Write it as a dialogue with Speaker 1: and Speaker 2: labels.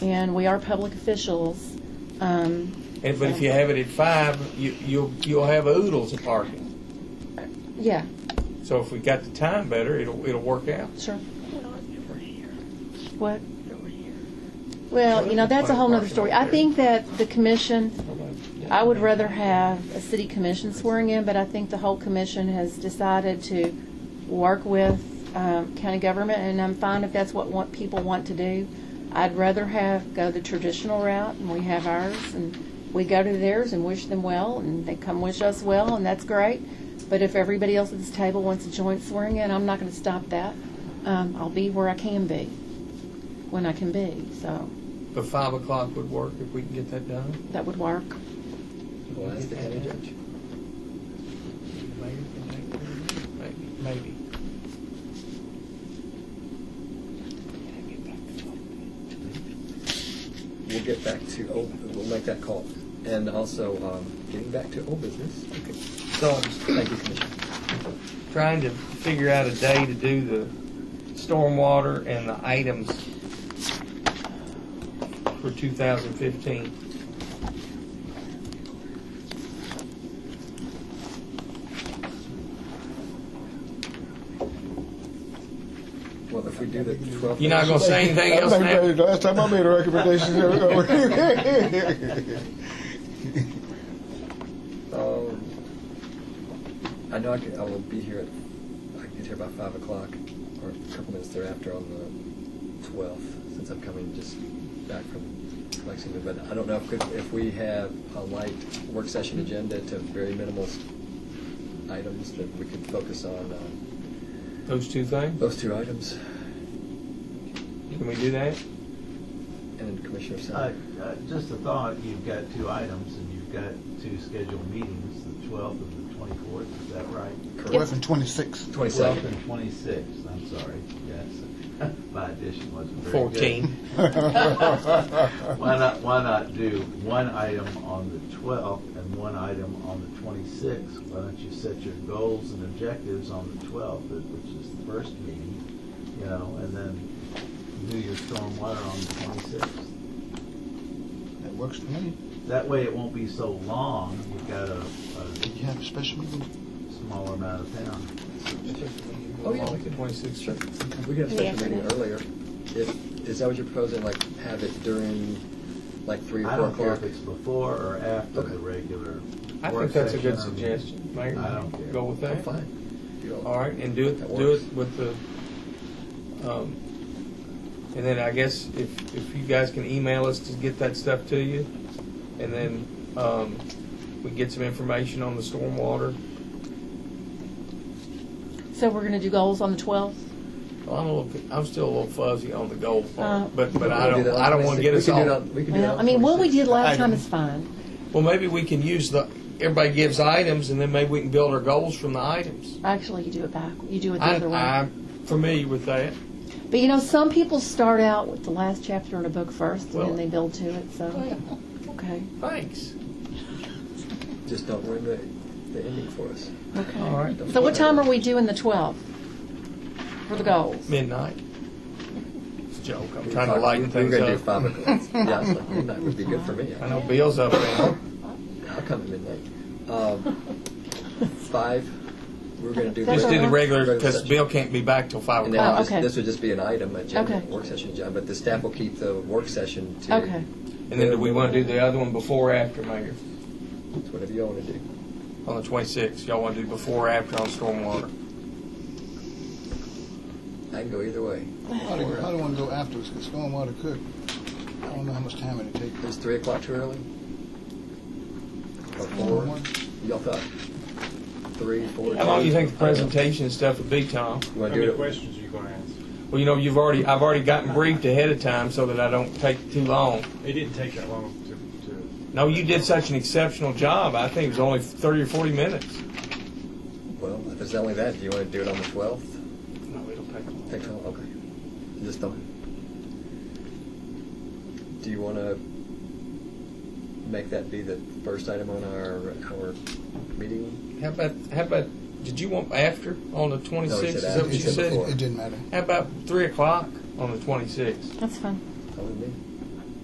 Speaker 1: and we are public officials. Um,
Speaker 2: And, but if you have it at five, you, you'll, you'll have oodles of parking.
Speaker 1: yeah,
Speaker 2: So if we got the time better, it'll, it'll work out.
Speaker 1: sure.
Speaker 3: Over here,
Speaker 1: What?
Speaker 3: over here.
Speaker 1: Well, you know, that's a whole nother story. I think that the commission, I would rather have a city commission swearing in, but I think the whole commission has decided to work with um, county government, and I'm fine if that's what want- people want to do. I'd rather have, go the traditional route, and we have ours, and we go to theirs and wish them well, and they come wish us well, and that's great. But if everybody else at this table wants a joint swearing in, I'm not going to stop that. Um, I'll be where I can be, when I can be, so
Speaker 2: But five o'clock would work if we can get that done.
Speaker 1: that would work.
Speaker 4: Well, that's the head judge.
Speaker 2: Maybe, maybe.
Speaker 4: We'll get back to, old- we'll make that call. And also, um, getting back to old business. Okay. So, thank you, Commissioner.
Speaker 2: Trying to figure out a day to do the stormwater and the items for two thousand fifteen.
Speaker 4: Well, if we do the 12th.
Speaker 2: You're not gonna say anything else
Speaker 5: I made-
Speaker 2: now?
Speaker 5: Last time I made a recommendation.
Speaker 4: Um, I know I, could, I will be here at, I can get here by five o'clock or a couple minutes thereafter on the twelfth, since I'm coming just back from Lexington. But I don't know if, could- if we have a light work session agenda to very minimal s- items that we could focus on, um,
Speaker 2: Those two things?
Speaker 4: those two items.
Speaker 2: Can we do that?
Speaker 4: And then Commissioner
Speaker 6: Uh,
Speaker 4: Sanders.
Speaker 6: uh, Just a thought, you've got two items and you've got two scheduled meetings, the 12th and the 24th, is that right?
Speaker 5: Eleven twenty-six.
Speaker 4: Twenty-second.
Speaker 6: 12th and 26th, I'm sorry, yes. My addition wasn't very good.
Speaker 2: Fourteen.
Speaker 6: Why not, why not do one item on the 12th and one item on the 26th? Why don't you set your goals and objectives on the 12th, uh, which is the first meeting, you know, and then do your stormwater on the 26th?
Speaker 5: That works for me.
Speaker 6: That way it won't be so long, you've got a,
Speaker 5: Did
Speaker 6: a
Speaker 5: you have a special meeting?
Speaker 6: smaller amount of town.
Speaker 4: Oh, yeah.
Speaker 2: Twenty-six, sure.
Speaker 4: We could
Speaker 1: In
Speaker 4: have
Speaker 1: the
Speaker 4: started the meeting earlier. If, is that what you're proposing, like have it during, like three or
Speaker 6: I
Speaker 4: four
Speaker 6: don't care
Speaker 4: o'clock?
Speaker 6: if it's before or after
Speaker 4: Okay.
Speaker 6: the regular
Speaker 2: I
Speaker 6: work
Speaker 2: think that's a good
Speaker 6: session.
Speaker 2: suggestion, Mayor.
Speaker 6: I don't care.
Speaker 2: Go with that.
Speaker 4: I'm fine. You all-
Speaker 2: All right, and do
Speaker 4: That
Speaker 2: it, do
Speaker 4: works.
Speaker 2: it with the, um, and then I guess if, if you guys can email us to get that stuff to you, and then, um, we get some information on the stormwater.
Speaker 1: So we're going to do goals on the 12th?
Speaker 2: Well, I'm a little, I'm still a little fuzzy on the goal
Speaker 1: Uh,
Speaker 2: part, but, but I
Speaker 4: We
Speaker 2: don't,
Speaker 4: can do that on
Speaker 2: I don't wanna
Speaker 4: 26.
Speaker 2: get
Speaker 4: We
Speaker 2: us
Speaker 4: can do it
Speaker 2: all.
Speaker 4: on- We can do it
Speaker 1: Well,
Speaker 4: on
Speaker 1: I mean, what we
Speaker 4: 26.
Speaker 1: did last
Speaker 5: Item.
Speaker 1: time is fine.
Speaker 2: Well, maybe we can use the, everybody gives items, and then maybe we can build our goals from the items.
Speaker 1: Actually, you do it back, you do it the
Speaker 2: I,
Speaker 1: other way.
Speaker 2: I'm familiar with that.
Speaker 1: But you know, some people start out with the last chapter in a book first, and
Speaker 2: Well-
Speaker 1: then they build to it, so, okay,
Speaker 2: Thanks.
Speaker 4: Just don't ruin the, the ending for us.
Speaker 2: All
Speaker 1: okay.
Speaker 2: right.
Speaker 1: So what time are we doing the 12th for the goals?
Speaker 2: Midnight. It's a joke, I'm
Speaker 4: We
Speaker 2: trying to
Speaker 4: talked-
Speaker 2: lighten
Speaker 4: We
Speaker 2: things
Speaker 4: were gonna do
Speaker 2: up.
Speaker 4: five o'clock. Yeah, I was like, midnight would be good for me.
Speaker 2: I know Bill's up there.
Speaker 4: I'll come at midnight. Um, Five, we're gonna do.
Speaker 1: That's
Speaker 2: Just do the
Speaker 1: Regular-
Speaker 2: regular, because
Speaker 4: session.
Speaker 2: Bill can't be back till five
Speaker 4: And
Speaker 2: o'clock.
Speaker 4: now,
Speaker 1: Oh,
Speaker 4: this-
Speaker 1: okay.
Speaker 4: this would just be an item, agenda,
Speaker 1: Okay.
Speaker 4: work session agenda, but the staff will keep the work session to.
Speaker 1: Okay.
Speaker 2: And then do we want to do the other one before or after, Mayor?
Speaker 4: It's whatever you all wanna do.
Speaker 2: On the twenty-sixth, y'all want to do before or after on stormwater?
Speaker 4: I can go either way.
Speaker 5: I don't, I don't wanna go afterwards, because stormwater could, I don't know how much time it'd take.
Speaker 4: Is three o'clock too early? Or four?
Speaker 5: Stormwater?
Speaker 4: Y'all thought? Three, four?
Speaker 2: How long do you
Speaker 4: two?
Speaker 2: think the presentation and stuff would be, Tom?
Speaker 4: You wanna
Speaker 7: How
Speaker 4: do
Speaker 7: many
Speaker 4: it?
Speaker 7: questions are you gonna ask?
Speaker 2: Well, you know, you've already, I've already gotten briefed ahead of time so that I don't take too long.
Speaker 7: It didn't take that long to, to,
Speaker 2: No, you did such an exceptional job. I think it was only thirty or forty minutes.
Speaker 4: Well, if it's only that, do you want to do it on the 12th?
Speaker 2: No, it'll take long.
Speaker 4: Take all, okay. Just don't. Do you want to make that be the first item on our, our meeting?
Speaker 2: How about, how about, did you want after on the twenty-sixth? Is that
Speaker 4: after.
Speaker 2: what you
Speaker 4: He said
Speaker 2: said?
Speaker 4: before.
Speaker 5: It didn't matter.
Speaker 2: How about three o'clock on the twenty-sixth?
Speaker 1: That's fine.
Speaker 4: That would be-